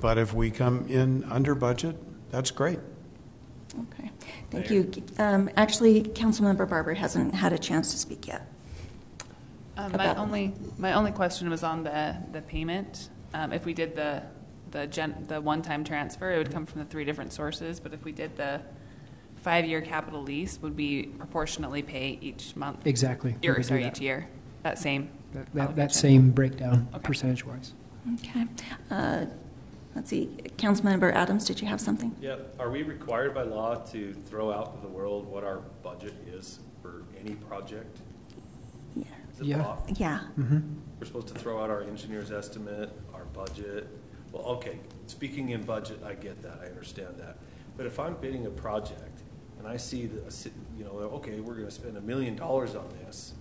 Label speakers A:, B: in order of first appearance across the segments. A: But if we come in under budget, that's great.
B: Okay, thank you. Um, Actually, Councilmember Barber hasn't had a chance to speak yet.
C: Um, My
B: About-
C: only, my only question was on the, the payment. Um, If we did the, the gen, the one-time transfer, it would come from the three different sources, but if we did the five-year capital lease, would we proportionately pay each month?
D: Exactly. We
C: Or,
D: could do
C: sorry, E
D: that.
C: each year, that same?
D: That- That, that
C: allocation?
D: same breakdown,
C: Okay.
D: percentage-wise.
B: Okay. Uh, Let's see, Councilmember Adams, did you have something?
E: Yeah, are we required by law to throw out to the world what our budget is for any project?
B: Yeah.
E: Is it
D: Yeah.
E: law?
B: Yeah,
E: We're supposed to throw out our engineer's estimate, our budget. Well, okay, speaking in budget, I get that, I understand that. But if I'm bidding a project and I see the, a ci- you know, okay, we're gonna spend a million dollars on this,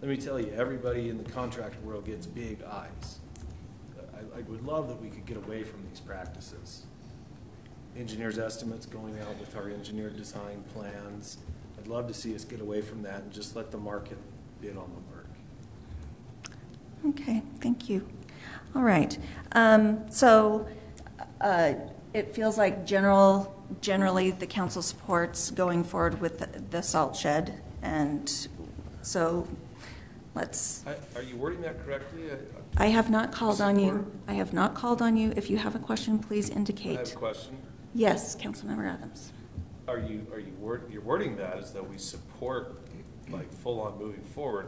E: let me tell you, everybody in the contract world gets big eyes. I, I would love that we could get away from these practices. Engineer's estimates going out with our engineer design plans. I'd love to see us get away from that and just let the market bid on the work.
B: okay, thank you. All right, Um, so uh, it feels like general, generally, the council supports going forward with the- the salt shed, and so let's,
E: I- Are you wording that correctly? I-
B: I have not called on you.
E: Support.
B: I have not called on you. If you have a question, please
E: I
B: indicate.
E: have a question.
B: Yes, Councilmember Adams.
E: Are you, are you word, you're wording that as though we support, like, full-on moving forward?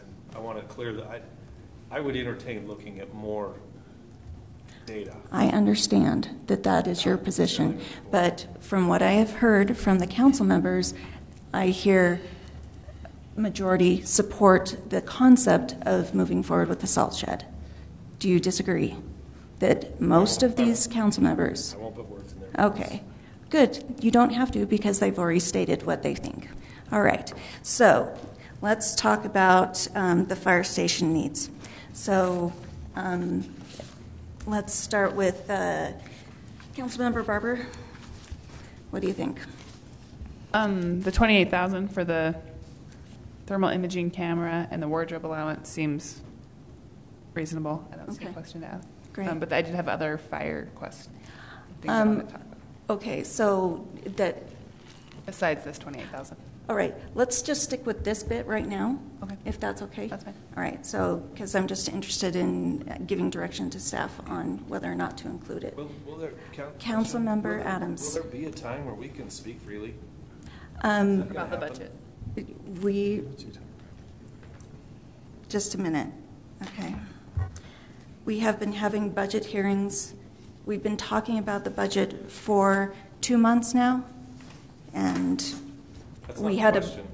E: And I want to clear that, I, I would entertain looking at more data.
B: I understand that that is your position, but from what I have heard from the council members, I hear majority support the concept of moving forward with the salt shed. Do you disagree that most of these council members?
E: I won't put words in there.
B: Okay, good. You don't have to because they've already stated what they think. All right, so let's talk about um, the fire station needs. So um, let's start with uh, Councilmember Barber. What do you think?
C: Um, the twenty-eight thousand for the thermal imaging camera and the wardrobe allowance seems reasonable. I don't see a
B: Okay.
C: question to ask.
B: Great.
C: Um, But I did have other fire questions, things I
B: Um,
C: wanted to talk about,
B: Okay, so that,
C: besides this twenty-eight thousand.
B: all right, let's just stick with this bit right now.
C: Okay.
B: If that's okay?
C: That's fine.
B: All right, so, because I'm just interested in uh, giving direction to staff on whether or not to include it.
E: Will, will there, coun-
B: Councilmember
E: will there-
B: Adams.
E: Will there be a time where we can speak freely?
B: Um,
E: Gonna
C: About the
E: happen?
C: budget.
B: We, just a minute, okay. We have been having budget hearings. We've been talking about the budget for two months now, and
E: That's
B: we
E: not
B: had
E: the
B: a.
E: question.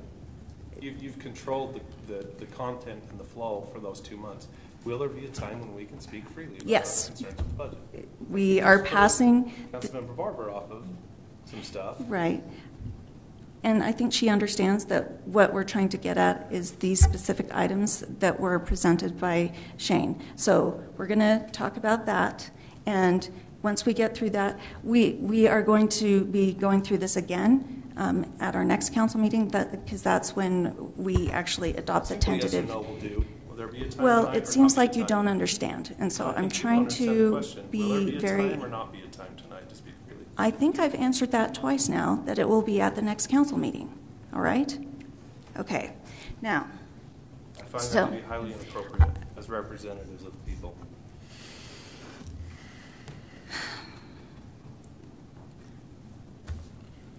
E: You've, you've controlled the, the, the content and the flow for those two months. Will there be a time when we can speak freely? about our
B: Yes.
E: Concerns with budget?
B: We are passing,
E: Councilmember Barber off of some stuff.
B: right. And I think she understands that what we're trying to get at is these specific items that were presented by Shane. So we're going to talk about that, and once we get through that, we, we are going to be going through this again um, at our next council meeting, because that's when we actually adopt the tentative.
E: Yes or no will do. Will there be a time?
B: Well,
E: tonight or
B: it seems
E: not be a
B: like you
E: time?
B: don't understand, and so
E: I
B: I'm
E: think you
B: trying
E: understand the
B: to
E: question.
B: be
E: Will there
B: very.
E: be a time or not be a time tonight to speak freely?
B: I think I've answered that twice now, that it will be at the next council meeting, all right? Okay, now,
E: I find
B: So-
E: that to be highly inappropriate as representatives of the people.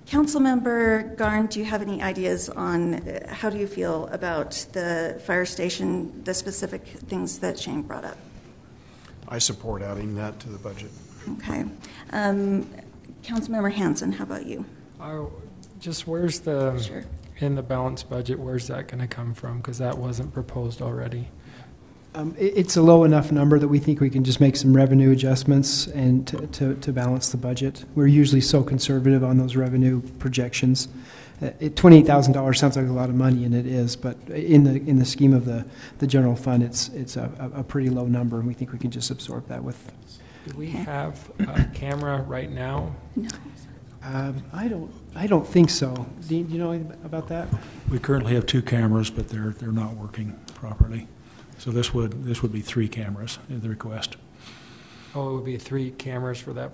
B: Councilmember Garn, do you have any ideas on, uh, how do you feel about the fire station, the specific things that Shane brought up?
A: I support adding that to the budget.
B: Okay. Um, Councilmember Hanson, how about you?
F: I- Just where's the,
B: Sure.
F: in the balanced budget, where's that going to come from? Because that wasn't proposed already.
D: Um, it, it's a low enough number that we think we can just make some revenue adjustments and to, to, to balance the budget. We're usually so conservative on those revenue projections. Uh, it, $28,000 sounds like a lot of money, and it is, but in the, in the scheme of the, the general fund, it's, it's a, a a pretty low number, and we think we can just absorb that with.
F: Do we have a camera right now?
D: Um, I, don't, I don't think so. Dean, do you know anything about that?
G: We currently have two cameras, but they're, they're not working properly. So this would, this would be three cameras, uh, the request.
F: Oh, it would be three cameras for that